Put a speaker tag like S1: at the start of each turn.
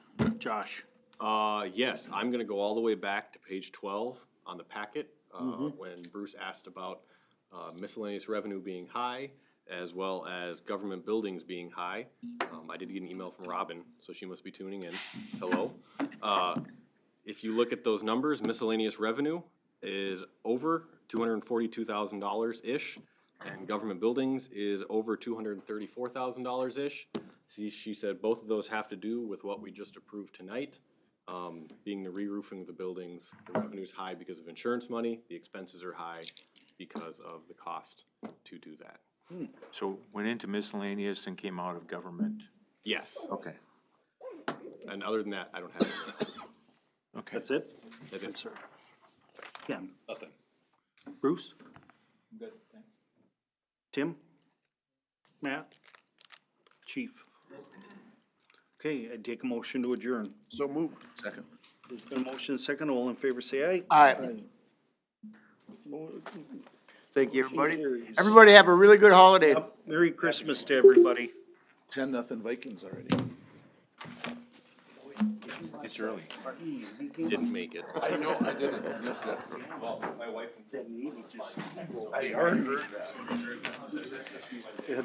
S1: Josh?
S2: Uh, yes, I'm gonna go all the way back to page twelve on the packet, uh, when Bruce asked about uh, miscellaneous revenue being high, as well as government buildings being high. Um, I did get an email from Robin, so she must be tuning in. Hello. Uh, if you look at those numbers, miscellaneous revenue is over two hundred and forty-two thousand dollars-ish, and government buildings is over two hundred and thirty-four thousand dollars-ish. See, she said both of those have to do with what we just approved tonight, um, being the re-roofing of the buildings. The revenue's high because of insurance money, the expenses are high because of the cost to do that.
S3: So went into miscellaneous and came out of government.
S2: Yes,
S3: Okay.
S2: and other than that, I don't have anything.
S3: Okay.
S1: it?
S2: That's it.
S1: Ken? Nothing. Bruce? Good, Tim? Matt? Chief? Okay, I take a motion to adjourn.
S4: So moved.
S5: Second.
S1: There's been a motion second, all in favor say aye.
S4: Aye.
S1: Mo-
S4: Thank you, everybody.
S1: carries.
S4: Everybody have a really good holiday.
S1: Merry Christmas to everybody.
S5: Ten, nothing Vikings already.
S3: It's early.
S2: Didn't make it.
S5: I know, I didn't miss that.
S1: That needle just-
S5: I already heard that.